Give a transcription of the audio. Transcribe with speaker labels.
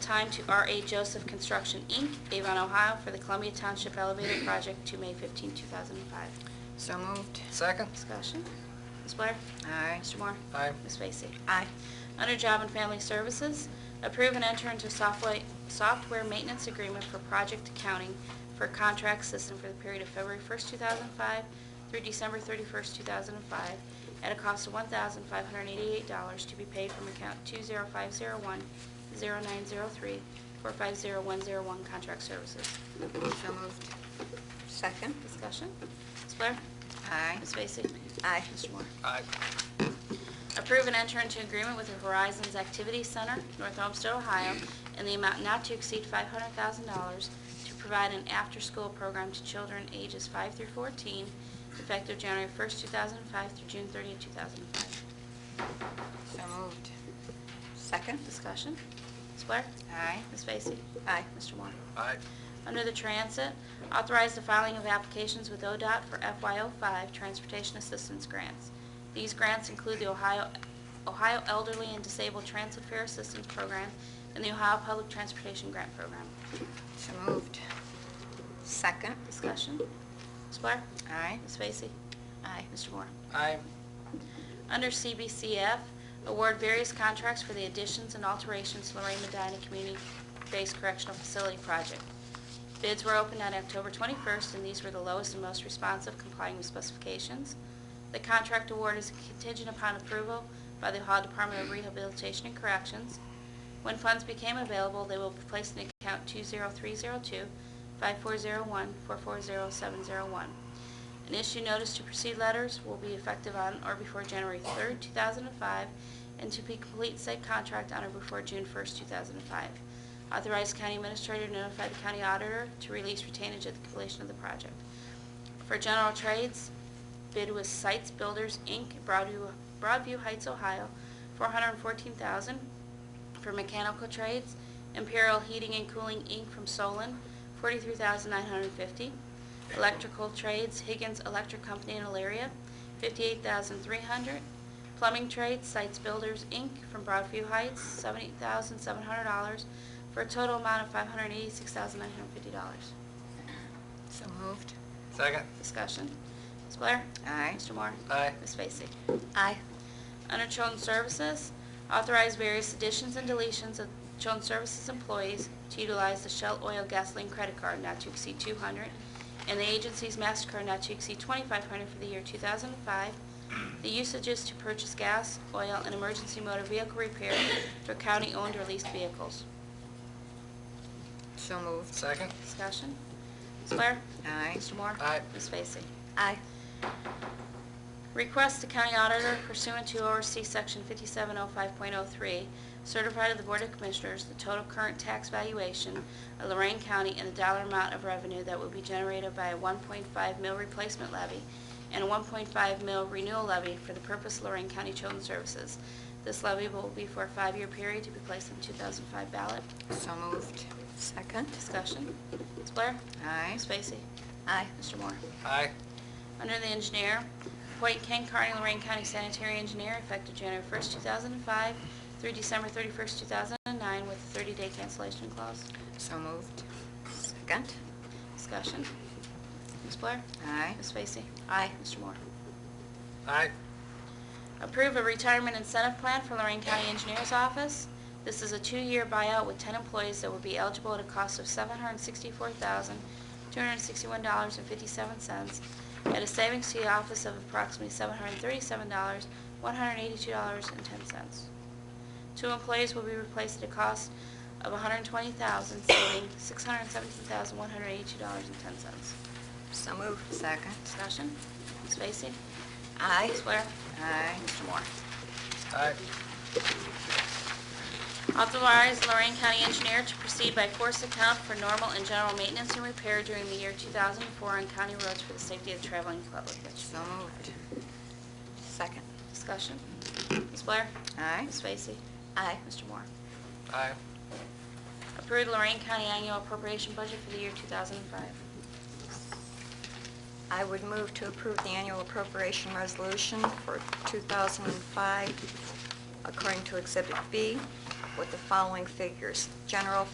Speaker 1: time to R.A. Joseph Construction, Inc., Avon, Ohio, for the Columbia Township Elevator Project to May 15, 2005.
Speaker 2: So moved.
Speaker 3: Second?
Speaker 1: Discussion. Ms. Blair?
Speaker 2: Aye.
Speaker 1: Mr. Moore?
Speaker 3: Aye.
Speaker 1: Ms. Vacy?
Speaker 2: Aye.
Speaker 1: Under Job and Family Services, approve and enter into software software maintenance agreement for project accounting for contract system for the period of February 1st, 2005 through December 31st, 2005, at a cost of $1,588 to be paid from account 20501-0903-450101 Contract Services.
Speaker 2: So moved. Second.
Speaker 1: Discussion? Ms. Blair?
Speaker 2: Aye.
Speaker 1: Ms. Vacy?
Speaker 2: Aye.
Speaker 1: Mr. Moore?
Speaker 3: Aye.
Speaker 1: Approve and enter into agreement with the Horizons Activity Center, North Homestead, Ohio, in the amount not to exceed $500,000 to provide an after-school program to children ages 5 through 14, effective January 1st, 2005 through June 30th, 2005.
Speaker 2: So moved. Second.
Speaker 1: Discussion? Ms. Blair?
Speaker 2: Aye.
Speaker 1: Ms. Vacy?
Speaker 2: Aye.
Speaker 1: Mr. Moore?
Speaker 3: Aye.
Speaker 1: Under the Transit, authorize the filing of applications with ODOT for FY05 Transportation Assistance Grants. These grants include the Ohio Ohio Elderly and Disabled Transit Fair Assistance Program and the Ohio Public Transportation Grant Program.
Speaker 2: So moved. Second.
Speaker 1: Discussion? Ms. Blair?
Speaker 2: Aye.
Speaker 1: Ms. Vacy? Aye. Mr. Moore?
Speaker 3: Aye.
Speaker 1: Under CBCF, award various contracts for the additions and alterations to Lorraine Medina Community-Based Correctional Facility Project. Bids were opened on October 21st, and these were the lowest and most responsive complying with specifications. The contract award is contingent upon approval by the Ohio Department of Rehabilitation and Corrections. When funds became available, they will be placed in account 20302-5401-440701. An issue notice to proceed letters will be effective on or before January 3rd, 2005, and to be complete said contract on or before June 1st, 2005. Authorize county administrator to notify the county auditor to release retainage at the completion of the project. For general trades, bid was Sites Builders, Inc., Broadview Broadview Heights, Ohio, 414000 For mechanical trades, Imperial Heating and Cooling, Inc., from Solon, 43950 Electrical trades, Higgins Electric Company in Elyria, 58300 Plumbing trades, Sites Builders, Inc., from Broadview Heights, $78,700, for a total amount of $586,950.
Speaker 2: So moved.
Speaker 3: Second?
Speaker 1: Discussion. Ms. Blair?
Speaker 2: Aye.
Speaker 1: Mr. Moore?
Speaker 3: Aye.
Speaker 1: Ms. Vacy?
Speaker 2: Aye.
Speaker 1: Under Children's Services, authorize various additions and deletions of Children's Services employees to utilize the Shell Oil Gasoline Credit Card not to exceed 200 and the agency's MasterCard not to exceed 2,500 for the year 2005. The usages to purchase gas, oil, and emergency motor vehicle repair for county-owned or leased vehicles.
Speaker 2: So moved.
Speaker 3: Second?
Speaker 1: Discussion. Ms. Blair?
Speaker 2: Aye.
Speaker 1: Mr. Moore?
Speaker 3: Aye.
Speaker 1: Ms. Vacy?
Speaker 2: Aye.
Speaker 1: Request the county auditor pursuant to ORC Section 5705.03, certify to the Board of Commissioners the total current tax valuation of Lorraine County and the dollar amount of revenue that will be generated by a 1.5 mil replacement levy and a 1.5 mil renewal levy for the purpose of Lorraine County Children's Services. This levy will be for a five-year period to be placed on 2005 ballot.
Speaker 2: So moved. Second.
Speaker 1: Discussion. Ms. Blair?
Speaker 2: Aye.
Speaker 1: Ms. Vacy?
Speaker 2: Aye.
Speaker 1: Mr. Moore?
Speaker 3: Aye.
Speaker 1: Under the engineer, appoint Ken Carney, Lorraine County Sanitary Engineer, effective January 1st, 2005 through December 31st, 2009, with a 30-day cancellation clause.
Speaker 2: So moved. Second.
Speaker 1: Discussion. Ms. Blair?
Speaker 2: Aye.
Speaker 1: Ms. Vacy?
Speaker 2: Aye.
Speaker 1: Mr. Moore?
Speaker 3: Aye.
Speaker 1: Approve a retirement incentive plan for Lorraine County Engineers Office. This is a two-year buyout with 10 employees that will be eligible at a cost of $764,261.57 at a savings to the office of approximately $737, $182.10. Two employees will be replaced at a cost of $120,000, saving $617,182.10.
Speaker 2: So moved. Second.
Speaker 1: Discussion? Ms. Vacy?
Speaker 2: Aye.
Speaker 1: Ms. Blair?
Speaker 2: Aye.
Speaker 1: Mr. Moore?
Speaker 3: Aye.
Speaker 1: Authorize Lorraine County Engineer to proceed by force account for normal and general maintenance and repair during the year 2004 on county roads for the safety of the traveling public.
Speaker 2: So moved. Second.
Speaker 1: Discussion. Ms. Blair?
Speaker 2: Aye.
Speaker 1: Ms. Vacy?
Speaker 2: Aye.
Speaker 1: Mr. Moore?
Speaker 3: Aye.
Speaker 1: Approved Lorraine County Annual Appropriation Budget for the year 2005.
Speaker 2: I would move to approve the annual appropriation resolution for 2005 according to Exhibit B. with the following figures. General